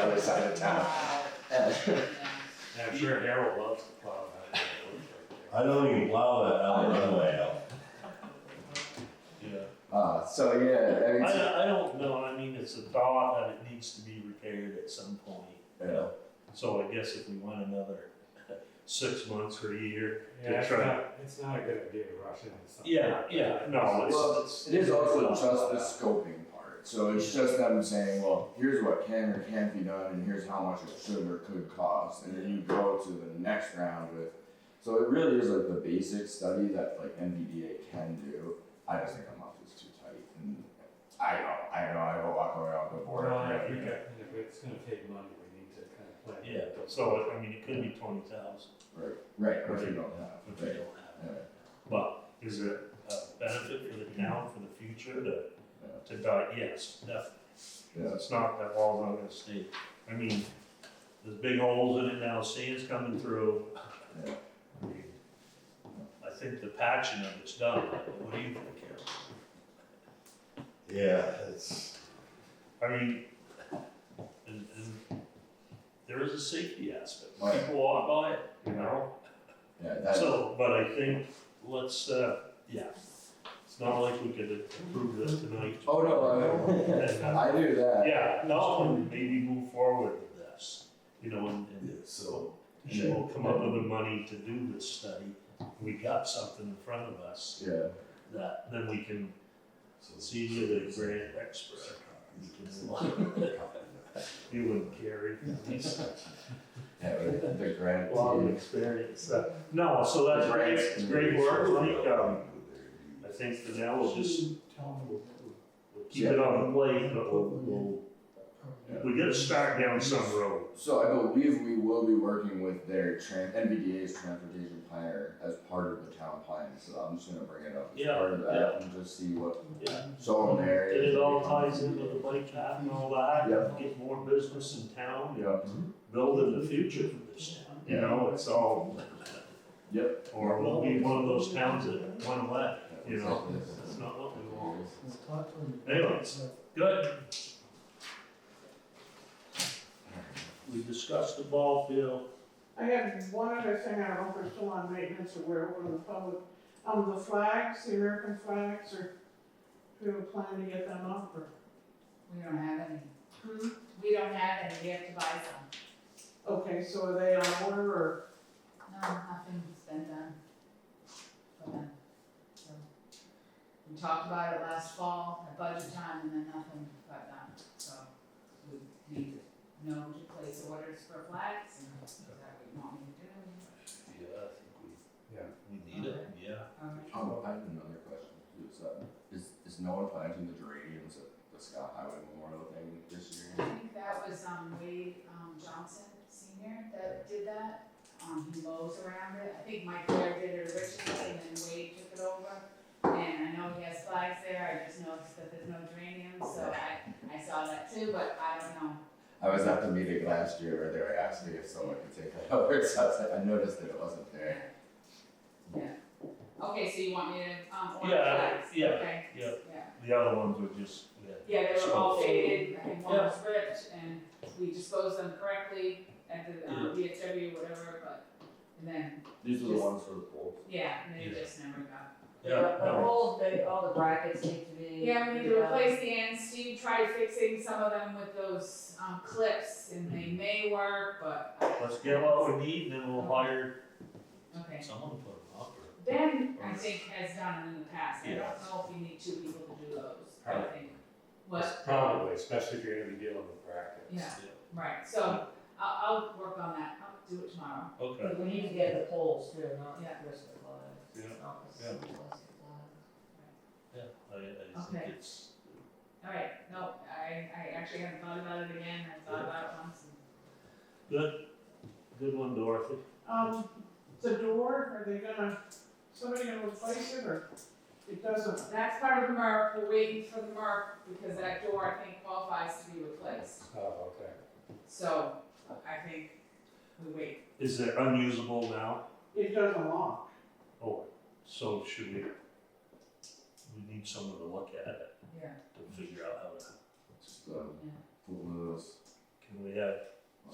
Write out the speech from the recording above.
other side of town. Uh, And I'm sure Harold loves to plow that road right I don't even plow that out of the way out. there. Uh, so yeah, I mean, Yeah. I it's- don't, I don't know, I mean, it's a thought that it needs to be repaired at some point. you know, So I guess if we want another six months or a year Yeah, to it's try. not, it's not a good idea to rush into something. Yeah, yeah, no, Well, it's, it is also just the scoping part. So it's just them saying, well, here's what can or can't be done, and here's how much it should or could cost, and then you go to the next round with. So it really is like the basic study that like NVDA can do. I just think I'm off is too tight, and I know, I know, I will walk around the board. Well, I think that- and if it's gonna take money, we need to kind of plan. yeah, so, I mean, it could be twenty thousand Right, right, which we don't have. if we Right. don't have Yeah. it. But is there a benefit for the town for the future to, Yeah. to die? Yes, definitely. Yeah. It's not that wall's not gonna stay. I mean, there's big holes in it now, sand's coming through. Yeah. I mean, I think the patching of it's done. What do you think, Carol? Yeah, it's, I mean, and, and there is a safety aspect. Right. People walk by it, you know? Yeah, that's, So, but I think, let's, uh, yeah, it's not like we could approve this tonight. oh no, And, I, uh, I do that. Yeah, no, and maybe move forward with this, you know, and, and yeah, so, She will come up with the money to do this study. We got something in front of us Yeah. that then we can so. see you the grant expert. You can- You and Gary, he's Yeah, but the a grant. lot of experience. Uh, No, so that's great, it's great work, like, um, I think for now we'll just we'll keep it on the plate, but we'll, we'll, we gotta start down some road. So I believe we will be working with their tran- NVDA's transportation planner as part of the town plan, so I'm just gonna bring it up as Yeah, part of that and just see what, Yeah. so there And is. it all ties in with the bike path and all that, Yeah. get more business in town, Yep, building the future for this town. You know, it's all, yep. or we'll be one of those towns that one away. You know, it's not what we want. Anyways, good. We discussed the ball field. I had one other thing, I don't know if they're still on maintenance or where, one of the public, um, the flags, the American flags, or do we have a plan to get them up or? We don't have any. We don't have any, we have to buy some. Okay, so are they on order or? No, nothing's been done for them, so. We talked about it last fall at budget time and then nothing got done, so we need to know to place orders for flags and is that what you want me to do? Yeah, I think Yeah. we, we yeah. Alright. Oh, I have another question, is, uh, is, is no one planting the geraniums at the Scott Highway Memorial thing this year? I think that was um Wade um Johnson Senior that did that. Um he mows around it. I think Mike Blair did it originally and then Wade took it over. And I know he has flags there. I just noticed that there's no geraniums, so I I saw that too, but I don't know. I was at the meeting last year where they were asking if someone could take that over, so I was like, I noticed that it wasn't there. Yeah. Okay, so you want me to um order Yeah, flags? yeah, Okay. yeah. Yeah. The other ones were just, yeah. Yeah, they were all So- faded and one was ripped and we disposed them correctly at the um VFW or whatever, but and then, These were the ones for the pool. yeah, and they Yeah. just never got Yeah, The no, whole, the, all the brackets need to be. Yeah, we need to replace the ends, Steve tried fixing some of them with those, um, clips, and they may work, but, let's get what we need, and then we'll hire okay. someone to put them up, or Ben, I think, has done it in the past, I Yeah. don't know if you need two people to do those, I Right. think. What, Probably, especially if you're gonna be dealing with brackets. yeah, right, so, I'll, I'll work on that, I'll do it tomorrow. okay. But We need to get the poles too, not Yeah. just the lines. Yeah. Not the Yeah. lines. Yeah, I, I think Okay. it's, Alright, no, I, I actually haven't thought about it again, I've thought about it once, and good one, Dorothy. Um, the door, are they gonna, somebody gonna replace it or it doesn't? that's part of the mark, we're waiting for the mark, because that door, I think, qualifies to be replaced. Oh, okay. So I think we wait. Is it unusable now? It doesn't lock. Oh, so should we, we need someone to look at it Yeah. to figure out how to, Just, um, put one of those and we have